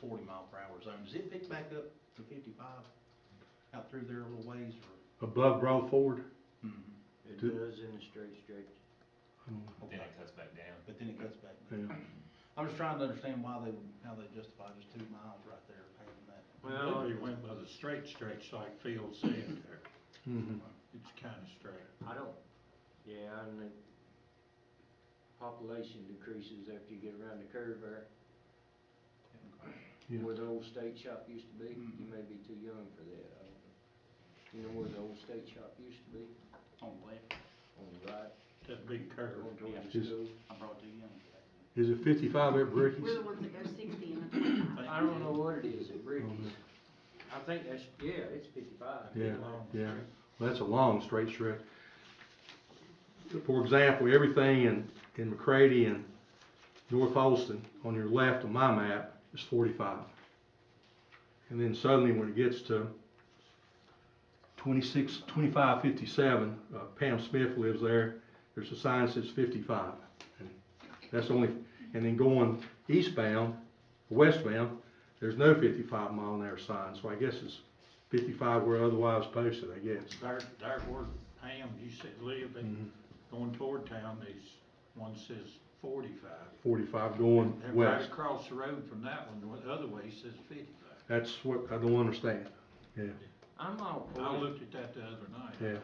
forty mile per hour zone. Does it pick back up to fifty-five out through there a little ways or? above Broad Ford. Mhm. It Do- does in the straight stretch. Um, But then it cuts back down. But then it cuts back. Yeah, I'm just trying to understand why they, would- how they justify just two miles right there paving that. Well, they went by the straight stretch like Phil said there, Mm-hmm. mhm. it's kinda straight. I don't, yeah, and the population decreases after you get around the curve there, Yeah. Mm-hmm. where the old state shop used to be. You Mhm. may be too young for that, I don't know. You know where the old state shop used to be, On the left, on the right, That big curve, going towards the Just- school? I brought two young. Is it fifty-five at We're Bricky's? the ones that go sixty and a twenty-five. I don't know what it is at Oh, Bricky's. no. I think that's, yeah, it's fifty-five. Yeah, long yeah. Well, that's a long straight stretch. For example, everything in, in McCrady and North Holston on your left on my map is forty-five. And then suddenly when it gets to 26, 25, 57, uh, Pam Smith lives there, there's a sign that says fifty-five. And That's the only, and then going eastbound, westbound, there's no fifty-five mile an hour sign, so I guess it's fifty-five where otherwise posted, I guess. there, there where Pam used to live, and Mm-hmm. going toward town, there's, one says forty-five. Forty-five going And right west, across the road from that one, the other way says fifty-five. that's what I don't understand, yeah. I'm all I for it, looked at that the other night. Yeah.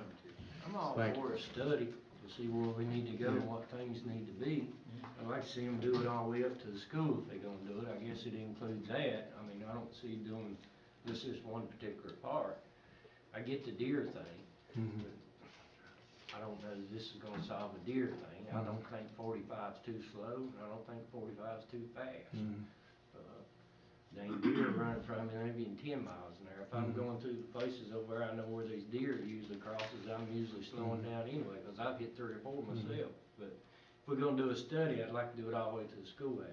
I'm all Thank for a study to see where we need to go and what things need to be. I'd like to see them do it all the way up to the school if they're gonna do it, I guess it includes that, I mean, I don't see doing, this is one particular part. I get the deer thing, Mhm. I don't know that this is gonna solve a deer thing, I don't think forty-five's too slow, and I don't think forty-five's too fast. Mhm. Uh, Dang deer running from me, maybe in ten miles an hour, if I'm Mhm. going through the places over where I know where these deer usually crosses, I'm usually slowing down anyway, cause I've hit three or four myself. But if we're gonna do a study, I'd like to do it all the way to the schoolhouse.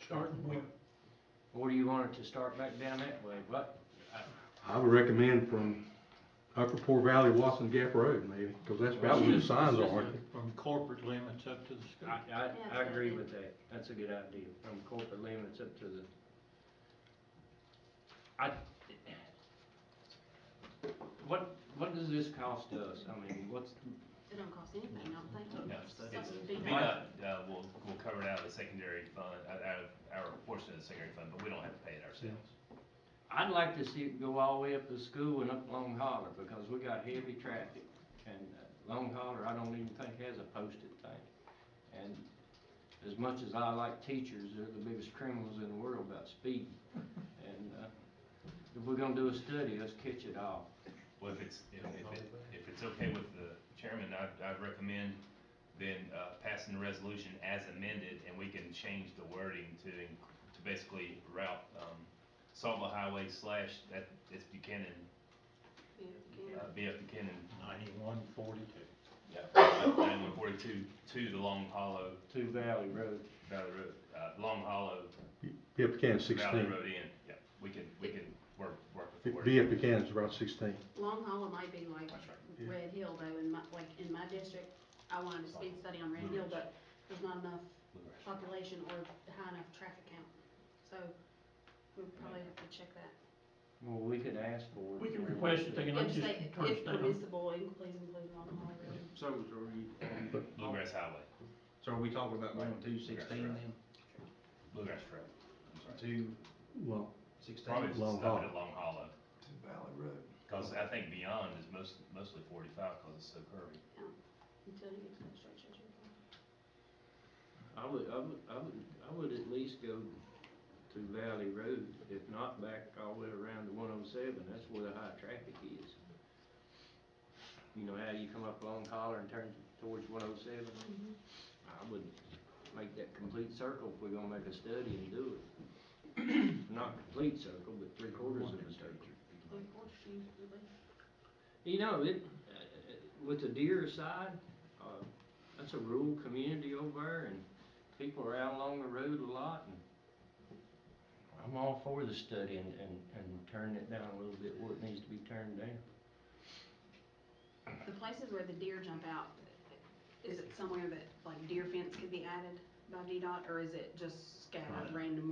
Starting with, Or do you want it to start back down that way, but, I would recommend from Upper Poor Valley, Watson Gap Road maybe, because that's about where the signs are. aren't they? from corporate limits up to the school. I, I, that's I a good agree idea. with that, that's a good idea, from corporate limits up to the. I, what, what does this cost us, I mean, what's, It don't cost anything, I don't think. No, It's it's, like it's, a big VDOT, uh, will, will cover it out of the secondary fund, out out of our portion of the secondary fund, but we don't have to pay it ourselves. I'd like to see it go all the way up to school and up Long Holler, because we got heavy traffic, and uh, Long Holler, I don't even think has a posted thing. And as much as I like teachers, they're the biggest criminals in the world about speed, and, uh, if we're gonna do a study, let's catch it all. Well, if it's, if, if it, if it's okay with the chairman, I'd, I'd recommend then, uh, passing the resolution as amended, and we can change the wording to, in- to basically route, um, Saltville Highway slash, that, it's Buchanan, Yeah. uh, VF Buchanan, Ninety-one, forty-two. ninety-one forty-two, to the Long Hollow To Valley Road. Valley Road, uh, Long Hollow Yeah, Buchanan Valley sixteen. Road in, yeah, we can, we can work, work with the wording. VF Buchanan's about sixteen. Long Hollow might be like That's right. Yeah. Red Hill though, in my, like, in my district, I wanted a speed study on Red Hill, but there's not enough population or high enough traffic count. So we probably have to check that. Well, we could ask for it. We can request it, they can let Yeah, just you say, turn if it down. permissible, in- please include Long Hollow Road. So are you, Bluegrass Highway, so are we talking Oh. about going to sixteen then? Bluegrass Trail. I'm sorry. Two Well, Probably sixteen? just Long stop Hollow. it at Long Hollow. To Valley Road. Cause I think beyond is most, mostly forty-five, cause it's so curvy. Until you get to that stretch that you're going. I would, I would, I would, I would at least go to Valley Road, if not back all the way around to one oh seven, that's where the high traffic is. You know how you come up Long Collar and turn towards one oh seven? I would make that complete circle if we're gonna make a study and do it. Not complete circle, but three quarters of a circle. So of course, you- you leave. You know, it, uh, uh, with the deer aside, uh, that's a rural community over there and people are out along the road a lot and I'm all for the study and, and, and turning it down a little bit where it needs to be turned down. The places where the deer jump out, is it somewhere that like deer fence could be added by VDOT or is it just scattered Right. random